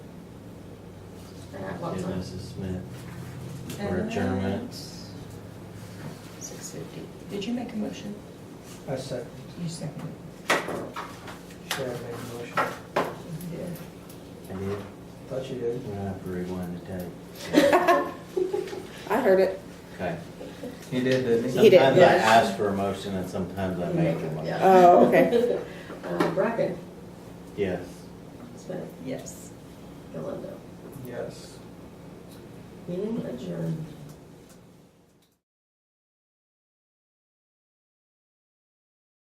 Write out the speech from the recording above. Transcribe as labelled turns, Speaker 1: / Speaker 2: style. Speaker 1: what
Speaker 2: to
Speaker 1: time?
Speaker 2: Mrs. Smith for adjournment.
Speaker 3: Uh, Six fifty. Did you make a motion?
Speaker 4: I second.
Speaker 3: You seconded.
Speaker 4: Sharon made a motion.
Speaker 3: Yeah.
Speaker 2: I did,
Speaker 4: Thought you did.
Speaker 2: I have to rewind the tape.
Speaker 5: I heard it.
Speaker 2: Okay.
Speaker 4: He did, didn't
Speaker 5: He did,
Speaker 2: Sometimes I
Speaker 5: yes.
Speaker 2: ask for a motion and sometimes I make a motion.
Speaker 5: Oh, okay.
Speaker 1: Uh, Bracken,
Speaker 2: Yes.
Speaker 1: Smith,
Speaker 3: Yes.
Speaker 1: Galindo,
Speaker 4: Yes.
Speaker 1: meeting adjourned.